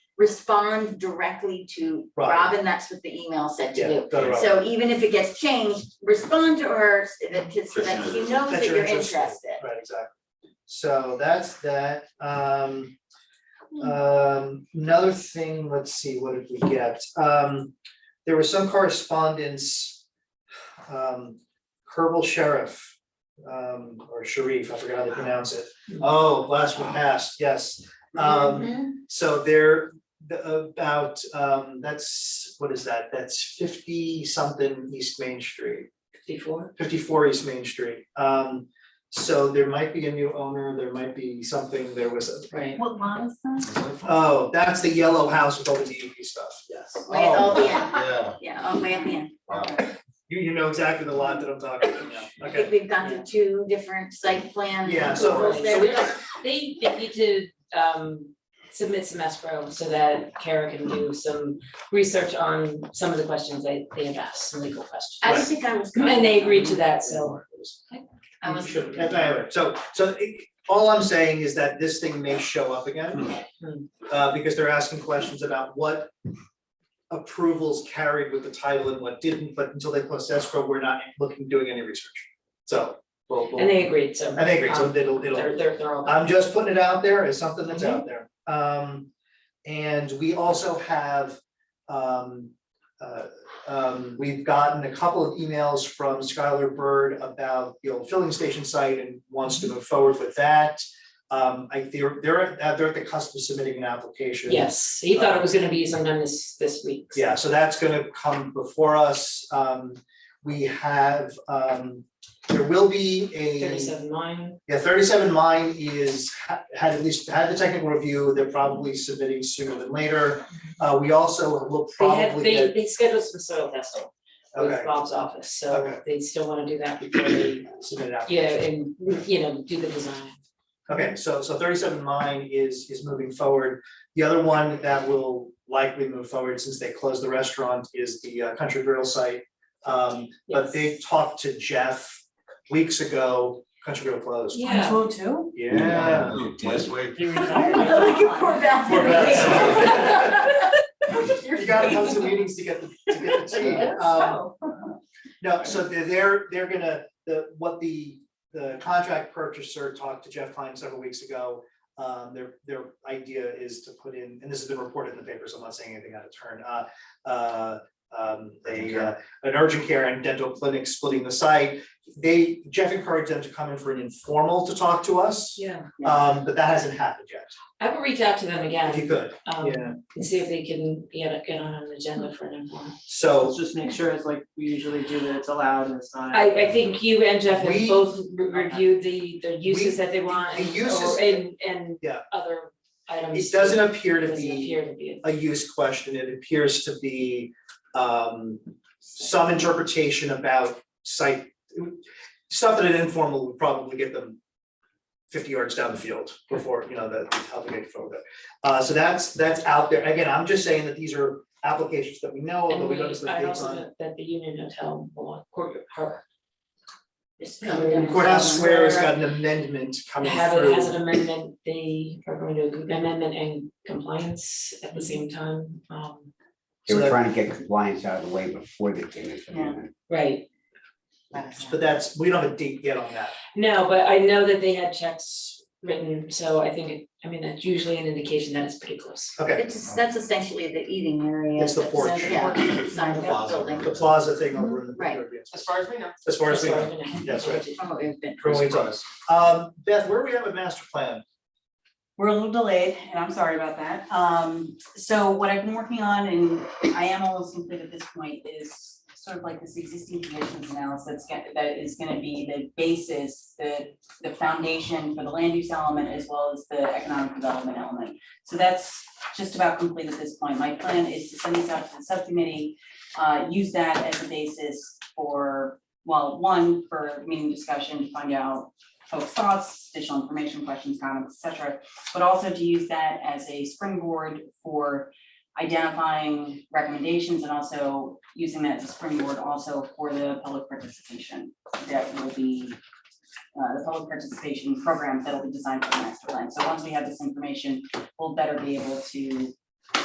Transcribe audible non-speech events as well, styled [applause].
respond directly to Right. Robin, that's what the email said to Yeah, do. done right. So even if it gets changed, respond to her so that so that she knows that you're interested. Right, exactly. So that's that, um. Um, another thing, let's see, what did we get? Um, there was some correspondence. Um, Kerbal Sheriff, um, or Sharif, I forgot how to pronounce it. Oh, last one passed, yes. Um, Mhm. so there, the- about, um, that's, what is that? That's fifty something East Main Street Fifty-four? fifty-four East Main Street. Um, so there might be a new owner, there might be something, there was a, Right. What lot is that? oh, that's the yellow house with all the DEP stuff. Yes. Oh. Way at all the end, Yeah. yeah, oh, way at the end. Wow. You, you know exactly the lot that I'm talking about now, I okay. think we've gone to two different site plan. Yeah, so- approvals So there. we don't, they, they need to, um, submit some escrow so that Kara can do some research on some of the questions they, they have asked, some legal questions. I don't think I was. And they agreed to that, so. I was. Sure, that's all right. so, so it- all I'm saying is that this thing may show up again. Hmm. Uh, because they're asking questions about what approvals carried with the title and what didn't, but until they close escrow, we're not looking, doing any research. So, we'll, we'll, And they agreed, so. I think, so um, it'll, it'll. They're, they're, they're all. I'm just putting it out there as something that's out there. Um, and we also have, um, uh, um, we've gotten a couple of emails from Skylar Bird about the old filling station site and wants to move forward with that. Um, I, they're, they're, at- they're at the cusp of submitting an application. Yes, he thought it was gonna be sometime this, this week. so. Yeah, so that's gonna come before us. Um, we have, um, there will be a. Thirty-seven nine. Yeah, thirty-seven mine is, ha- had at least, had the technical review, they're probably submitting sooner than later. Uh, we also will They had, probably they, get, they scheduled some soil testing okay, with Bob's office, so Okay. they still wanna do [clears throat] that before they, submit it out. yeah, and, you know, do the design. Okay, so, so thirty-seven mine is, is moving forward. The other one that will likely move forward since they closed the restaurant is the uh, Country Grill site. Um, but Yes. they talked to Jeff weeks ago, Country Grill closed. Yeah. Two oh two? Yeah. Last week. [laughs] Look at poor Beth. Oh Poor Beth. [laughs] You're You gotta come to meetings to get the, to get the [laughs] tea. Um, No, so they're- they're, they're gonna, the, what the, the contract purchaser talked to Jeff Klein several weeks ago. Um, their, their idea is to put in, and this has been reported in the paper, so I'm not saying anything out of turn, uh, uh, um, a, uh, an urgent care and dental clinic splitting the site. They, Jeff encouraged them to come in for an informal to talk to us, Yeah. um, but that hasn't happened yet, I will reach out to them if you again, could, um, yeah. and see if they can get, get on an agenda for an informal. So Let's just make sure it's like we usually do that it's allowed and it's not. I, I think you and Jeff Um, We- have both re- reviewed the, the uses that they want the and, uses- or, and, and Yeah. other items. it doesn't appear to Doesn't be appear to be. a use question, it appears to be um some interpretation about site. Stuff that an informal would probably get them fifty yards down the field before, you know, that how they get forward. Uh so that's that's out there, again, I'm just saying that these are applications that we know, of, And but we we, don't have the I dates also on. know that the Union Hotel, belong- court, her, Courthouse Square has Square. got an amendment coming have through. it as an amendment, they are going to do amendment and compliance at the same time, um, So They were that- trying to get compliance out of the way before they came into Yeah. amendment. right. But that's, we don't have a date yet on that. No, but I know that they had checks written, so I think, it- I mean, that's usually an indication that it's pretty close. Okay, It's, that's essentially the eating area. It's the that's- porch. Yeah, side of the Plaza. building, the plaza thing over in the. Right. As far as we know. As far as we know, That's all I know. that's right. from what we've been. From what we know. Um, Beth, where do we have a master plan? We're a little delayed and I'm sorry about that. Um, so what I've been working on and I am almost complete at this point is sort of like this existing conditions analysis that's gonna, that is gonna be the basis, the, the foundation for the land use element as well as the economic development element. So that's just about complete at this point. My plan is to send this out to the subcommittee, uh, use that as a basis for, well, one, for meeting discussion, to find out folks' thoughts, additional information, questions, comments, et cetera, but also to use that as a springboard for identifying recommendations and also using that as a springboard also for the public participation that will be uh, the public participation program that will be designed for the master plan. So once we have this information, we'll better be able to